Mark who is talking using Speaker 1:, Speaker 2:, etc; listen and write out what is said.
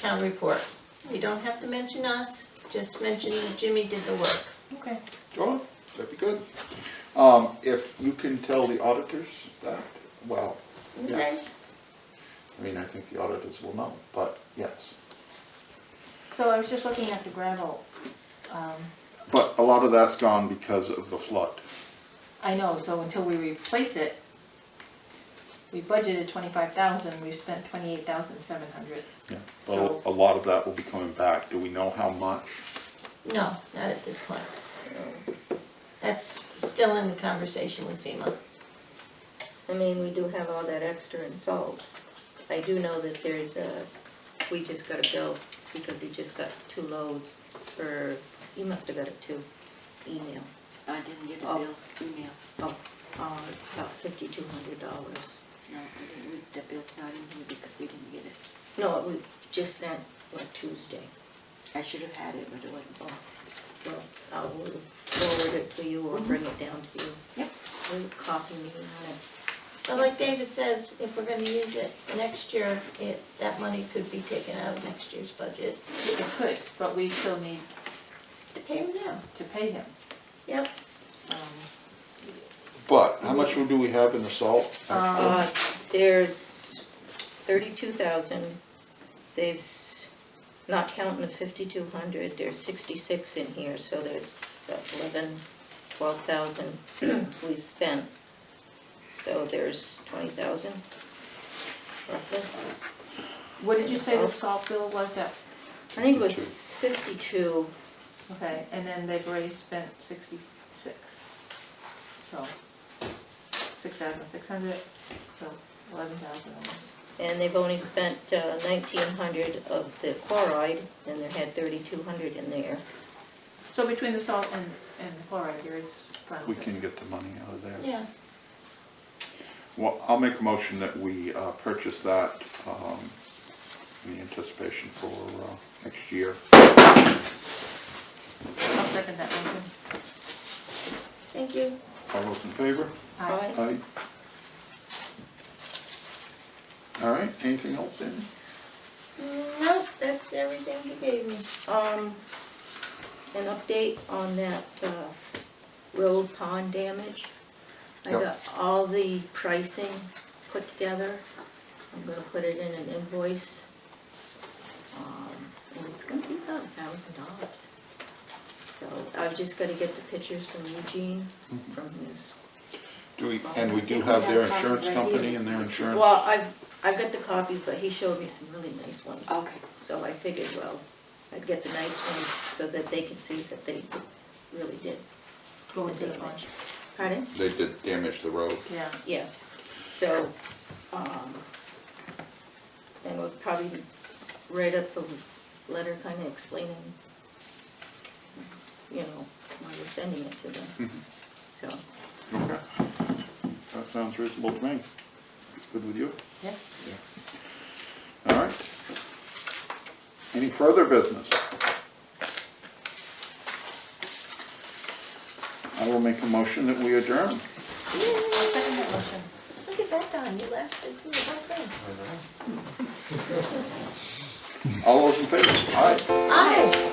Speaker 1: town report. You don't have to mention us, just mention that Jimmy did the work.
Speaker 2: Okay.
Speaker 3: Oh, that'd be good. Um, if you can tell the auditors that, well, yes. I mean, I think the auditors will know, but yes.
Speaker 2: So I was just looking at the gravel. um,
Speaker 3: But a lot of that's gone because of the flood.
Speaker 2: I know, so until we replace it, we budgeted twenty-five thousand, we spent twenty-eight thousand seven hundred.
Speaker 3: Yeah. But a lot of that will be coming back. Do we know how much?
Speaker 1: No, not at this point. That's still in the conversation with FEMA.
Speaker 4: I mean, we do have all that extra in salt. I do know that there's a, we just got a bill because he just got two loads for, he must have got a two email.
Speaker 5: I didn't get a
Speaker 4: Oh.
Speaker 5: bill, email,
Speaker 4: Oh, uh, about fifty-two hundred dollars.
Speaker 5: no, I didn't, we- the bill's not in here because we didn't get it.
Speaker 4: No, it was just sent on Tuesday.
Speaker 5: I should have had it, but it wasn't.
Speaker 4: Oh, Well, I'll forward it to you or bring it down to you.
Speaker 5: Mm-hmm. Yep.
Speaker 4: Will you copy me on it?
Speaker 1: But like David says, if we're gonna use it next year, it, that money could be taken out of next year's budget
Speaker 2: It could, but we still need
Speaker 1: to pay him now.
Speaker 2: to pay him.
Speaker 1: Yep.
Speaker 2: Um,
Speaker 3: But how much do we have in the salt? actually?
Speaker 2: Um,
Speaker 4: Uh, There's thirty-two thousand, they've, s- not counting the fifty-two hundred, there's sixty-six in here, so there's about eleven, twelve thousand we've spent. So there's twenty thousand, roughly.
Speaker 2: What did you say the salt bill was at?
Speaker 4: I think it was fifty-two,
Speaker 2: Okay, and then they've already spent sixty-six. So, six thousand six hundred, so eleven thousand.
Speaker 4: and they've only spent uh, nineteen hundred of the chloride, and they had thirty-two hundred in there.
Speaker 2: So between the salt and, and the chloride, there is. funds
Speaker 3: We
Speaker 2: that-
Speaker 3: can get the money out of there.
Speaker 1: Yeah,
Speaker 3: Well, I'll make a motion that we uh, purchase that um, in anticipation for uh, next year.
Speaker 2: I'll second that motion.
Speaker 1: thank you.
Speaker 3: All those in favor?
Speaker 2: Aye.
Speaker 4: Aye.
Speaker 3: Aye. All right, anything else, Amy?
Speaker 1: Nope, that's everything he gave me.
Speaker 4: Um, an update on that, uh, road pond damage. I
Speaker 3: Yep.
Speaker 4: got all the pricing put together. I'm gonna put it in an invoice. Um, and it's gonna be about a thousand dollars. So I've just gotta get the pictures from Eugene, from his,
Speaker 3: Do we, and we do have their insurance company and their
Speaker 2: Um,
Speaker 3: insurance?
Speaker 4: well, I've, I've got the copies, but he showed me some really nice ones.
Speaker 5: Okay,
Speaker 4: So I figured, well, I'd get the nice ones so that they can see that they really did
Speaker 2: Go
Speaker 4: the
Speaker 2: into the
Speaker 4: damage.
Speaker 2: bunch.
Speaker 4: Pardon?
Speaker 3: They did damage the road.
Speaker 2: Yeah,
Speaker 4: Yeah, so, um, and we'll probably write up a letter kind of explaining, you know, why we're sending it to them, so.
Speaker 3: Okay. That sounds reasonable to me. Good with you?
Speaker 2: yeah.
Speaker 3: All right. Any further business? I will make a motion that we adjourn.
Speaker 2: I'll second that motion.
Speaker 1: Look at that, Don, you lasted through the whole thing.
Speaker 3: All those in favor? Aye.
Speaker 1: Aye.